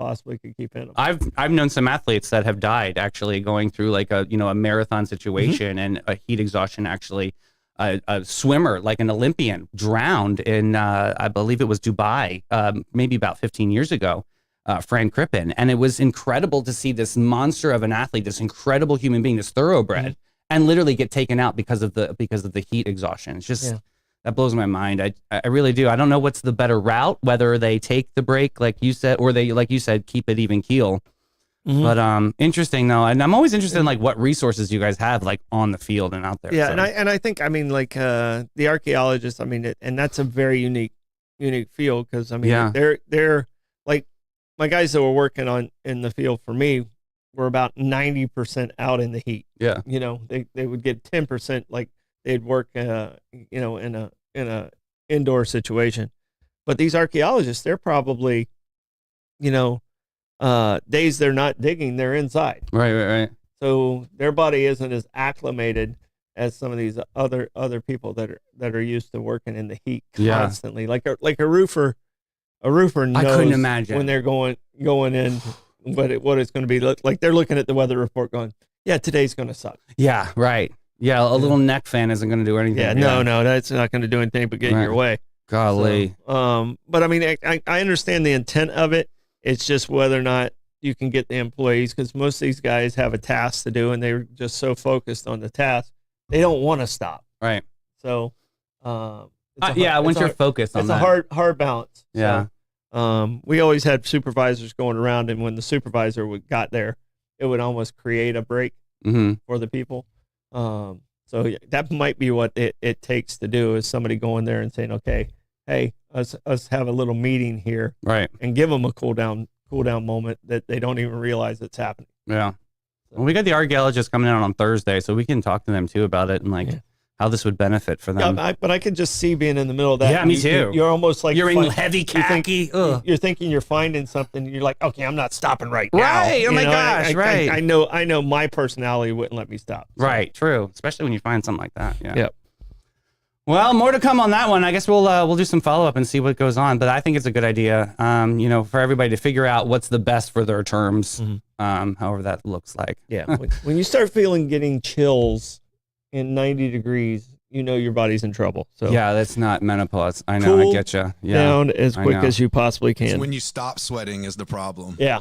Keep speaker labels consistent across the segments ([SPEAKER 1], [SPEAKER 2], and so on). [SPEAKER 1] possibly could keep in them.
[SPEAKER 2] I've I've known some athletes that have died actually going through like a you know a marathon situation and a heat exhaustion actually. A, a swimmer, like an Olympian, drowned in uh, I believe it was Dubai, um, maybe about 15 years ago. Uh, Fran Crippen, and it was incredible to see this monster of an athlete, this incredible human being, this thoroughbred, and literally get taken out because of the because of the heat exhaustion. It's just
[SPEAKER 1] Yeah.
[SPEAKER 2] that blows my mind. I I really do. I don't know what's the better route, whether they take the break like you said, or they like you said keep it even keel.
[SPEAKER 1] Mhm.
[SPEAKER 2] But um, interesting though, and I'm always interested in like what resources you guys have like on the field and out there.
[SPEAKER 1] Yeah,
[SPEAKER 2] so.
[SPEAKER 1] and I and I think I mean like uh, the archaeologists. I mean, it, and that's a very unique unique field because I mean
[SPEAKER 2] Yeah.
[SPEAKER 1] they're they're like my guys that were working on in the field for me were about ninety percent out in the heat.
[SPEAKER 2] Yeah.
[SPEAKER 1] you know they they would get ten percent like they'd work uh you know in a in a indoor situation, but these archaeologists they're probably you know uh days they're not digging they're inside
[SPEAKER 2] right, right, right.
[SPEAKER 1] so their body isn't as acclimated as some of these other other people that are that are used to working in the heat
[SPEAKER 2] Yeah.
[SPEAKER 1] constantly. Like a like a roofer, a roofer knows
[SPEAKER 2] couldn't imagine.
[SPEAKER 1] when they're going going in what it, what it's going to be like. Like they're looking at the weather report, going, "Yeah, today's going to suck."
[SPEAKER 2] Yeah, right. Yeah, a little neck fan isn't going to do anything.
[SPEAKER 1] Yeah, no, no, that's not going to do anything but get in your
[SPEAKER 2] Right.
[SPEAKER 1] way.
[SPEAKER 2] golly,
[SPEAKER 1] So, um, but I mean, I- I, I understand the intent of it. It's just whether or not you can get the employees because most of these guys have a task to do and they're just so focused on the task they don't want to stop.
[SPEAKER 2] right?
[SPEAKER 1] So, um, it's a
[SPEAKER 2] Uh,
[SPEAKER 1] hard-
[SPEAKER 2] yeah,
[SPEAKER 1] it's
[SPEAKER 2] once
[SPEAKER 1] a
[SPEAKER 2] you're
[SPEAKER 1] hard-
[SPEAKER 2] focused on
[SPEAKER 1] it's
[SPEAKER 2] that.
[SPEAKER 1] a hard hard balance. So,
[SPEAKER 2] Yeah.
[SPEAKER 1] um, we always had supervisors going around, and when the supervisor would, got there, it would almost create a break
[SPEAKER 2] hmm
[SPEAKER 1] for the people. Um, so yeah, that might be what it, it takes to do is somebody going there and saying, okay, hey, us us have a little meeting here
[SPEAKER 2] Right.
[SPEAKER 1] and give them a cool down cool down moment that they don't even realize it's happening.
[SPEAKER 2] Yeah. Well, we got the archaeologists coming out on Thursday, so we can talk to them too about it and like
[SPEAKER 1] Yeah.
[SPEAKER 2] how this would benefit for them.
[SPEAKER 1] Yeah, I, but I can just see being in the middle of that.
[SPEAKER 2] Um, Yeah, me
[SPEAKER 1] You- you-
[SPEAKER 2] too.
[SPEAKER 1] You're almost like
[SPEAKER 2] you're in
[SPEAKER 1] fin-
[SPEAKER 2] heavy
[SPEAKER 1] you think-
[SPEAKER 2] khaki. Ugh.
[SPEAKER 1] you're thinking you're finding something. You're like, okay, I'm not stopping right now.
[SPEAKER 2] Right, oh
[SPEAKER 1] You
[SPEAKER 2] my
[SPEAKER 1] know, I-
[SPEAKER 2] gosh,
[SPEAKER 1] I, I-
[SPEAKER 2] right.
[SPEAKER 1] I, know. I know. My personality wouldn't let me stop. So,
[SPEAKER 2] Right, true. Especially when you find something like that. Yeah.
[SPEAKER 1] Yep.
[SPEAKER 2] Well, more to come on that one. I guess we'll uh, we'll do some follow up and see what goes on. But I think it's a good idea, um, you know, for everybody to figure out what's the best for their terms,
[SPEAKER 1] Mhm.
[SPEAKER 2] um, however that looks like.
[SPEAKER 1] Yeah. when, when you start feeling getting chills in 90 degrees, you know your body's in trouble. So
[SPEAKER 2] Yeah, that's not menopause. I know. I
[SPEAKER 1] Cool
[SPEAKER 2] get you. Yeah.
[SPEAKER 1] down as
[SPEAKER 2] I
[SPEAKER 1] quick
[SPEAKER 2] know.
[SPEAKER 1] as you possibly
[SPEAKER 3] It's
[SPEAKER 1] can.
[SPEAKER 3] when you stop sweating is the problem.
[SPEAKER 1] yeah.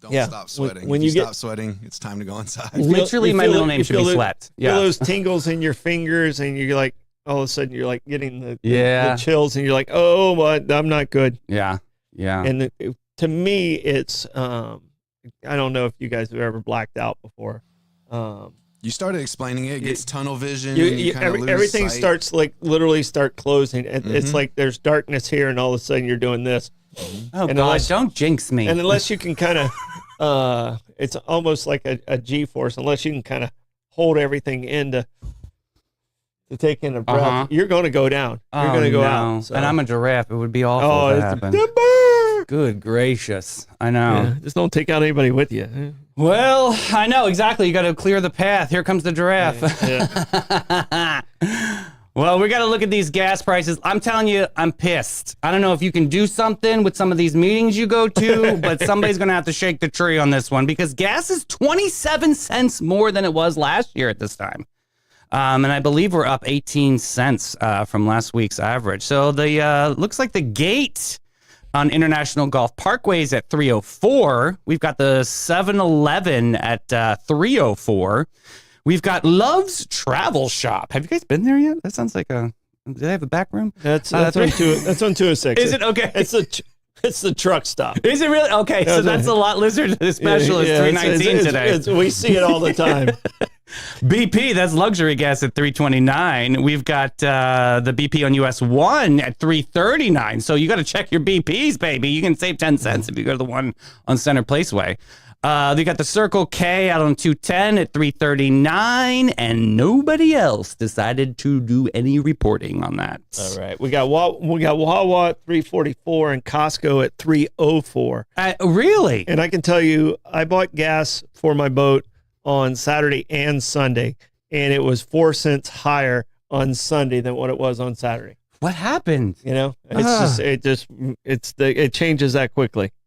[SPEAKER 3] Don't
[SPEAKER 1] yeah. When-
[SPEAKER 3] stop sweating.
[SPEAKER 1] when
[SPEAKER 3] When,
[SPEAKER 1] you
[SPEAKER 3] you,
[SPEAKER 1] get-
[SPEAKER 3] stop sweating, it's time to go inside.
[SPEAKER 1] You feel-
[SPEAKER 2] Literally,
[SPEAKER 1] you
[SPEAKER 2] my
[SPEAKER 1] feel
[SPEAKER 2] middle
[SPEAKER 1] it-
[SPEAKER 2] name
[SPEAKER 1] you
[SPEAKER 2] should be
[SPEAKER 1] feel it-
[SPEAKER 2] Sweat.
[SPEAKER 1] Feel
[SPEAKER 2] Yeah.
[SPEAKER 1] those tingles in your fingers, and you're like, all of a sudden, you're like getting the, the-
[SPEAKER 2] Yeah.
[SPEAKER 1] the chills, and you're like, oh, what? I'm not good.
[SPEAKER 2] Yeah. Yeah.
[SPEAKER 1] and it- it- to me it's um i don't know if you guys have ever blacked out before um
[SPEAKER 3] You started explaining it, it
[SPEAKER 1] You-
[SPEAKER 3] gets tunnel vision.
[SPEAKER 1] you,
[SPEAKER 3] and you
[SPEAKER 1] you-
[SPEAKER 3] kinda
[SPEAKER 1] every-
[SPEAKER 3] lose
[SPEAKER 1] everything
[SPEAKER 3] sight.
[SPEAKER 1] starts like literally start closing It- it's
[SPEAKER 2] Mm-hmm.
[SPEAKER 3] Mhm.
[SPEAKER 1] like there's darkness here and all of a sudden you're doing this
[SPEAKER 2] oh
[SPEAKER 1] and
[SPEAKER 2] God!
[SPEAKER 1] unless-
[SPEAKER 2] don't jinx me.
[SPEAKER 1] and unless you can kind of uh it's almost like a, a g force unless you can kind of hold everything in to to take in a breath
[SPEAKER 2] Uh-huh.
[SPEAKER 1] you're going to go down
[SPEAKER 2] oh,
[SPEAKER 1] you're going to go
[SPEAKER 2] no.
[SPEAKER 1] out so-
[SPEAKER 2] And I'm a giraffe. It would be awful.
[SPEAKER 1] oh
[SPEAKER 2] if that
[SPEAKER 1] it's
[SPEAKER 2] happened. Good gracious! I know.
[SPEAKER 1] Yeah, just don't take out anybody with you
[SPEAKER 2] Well, I know exactly. You got to clear the path. Here comes the giraffe. well, we got to look at these gas prices. I'm telling you, I'm pissed. I don't know if you can do something with some of these meetings you go to, but somebody's going to have to shake the tree on this one because gas is 27 cents more than it was last year at this time. Um, and I believe we're up 18 cents uh, from last week's average. So the uh, looks like the gate on International Golf Parkways at 304. We've got the 7-Eleven at uh, 304. We've got Love's Travel Shop. Have you guys been there yet? That sounds like a. Do they have a back room?
[SPEAKER 1] That's
[SPEAKER 2] Uh,
[SPEAKER 1] that's on two. That's on two six.
[SPEAKER 2] Is it okay?
[SPEAKER 1] It's the tr- it's the truck stop.
[SPEAKER 2] Is it really okay?
[SPEAKER 1] Yeah,
[SPEAKER 2] So that's a lot lizard specialist
[SPEAKER 1] Yeah, yeah, it's-
[SPEAKER 2] 319
[SPEAKER 1] it's-
[SPEAKER 2] today.
[SPEAKER 1] it's- we see it all the time.
[SPEAKER 2] BP, that's luxury gas at 329. We've got uh, the BP on US 1 at 339. So you got to check your BPs, baby. You can save 10 cents if you go to the one on Center Placeway. Uh, they got the Circle K out on 210 at 339, and nobody else decided to do any reporting on that.
[SPEAKER 1] all right, we got Wa- we got Wawa at three forty four and Costco at three oh four.
[SPEAKER 2] Uh, really?
[SPEAKER 1] And I can tell you, I bought gas for my boat on Saturday and Sunday, and it was four cents higher on Sunday than what it was on Saturday.
[SPEAKER 2] What happened?
[SPEAKER 1] You know, it's
[SPEAKER 2] Ah.
[SPEAKER 1] just it just it's the it changes that quickly.
[SPEAKER 2] Um,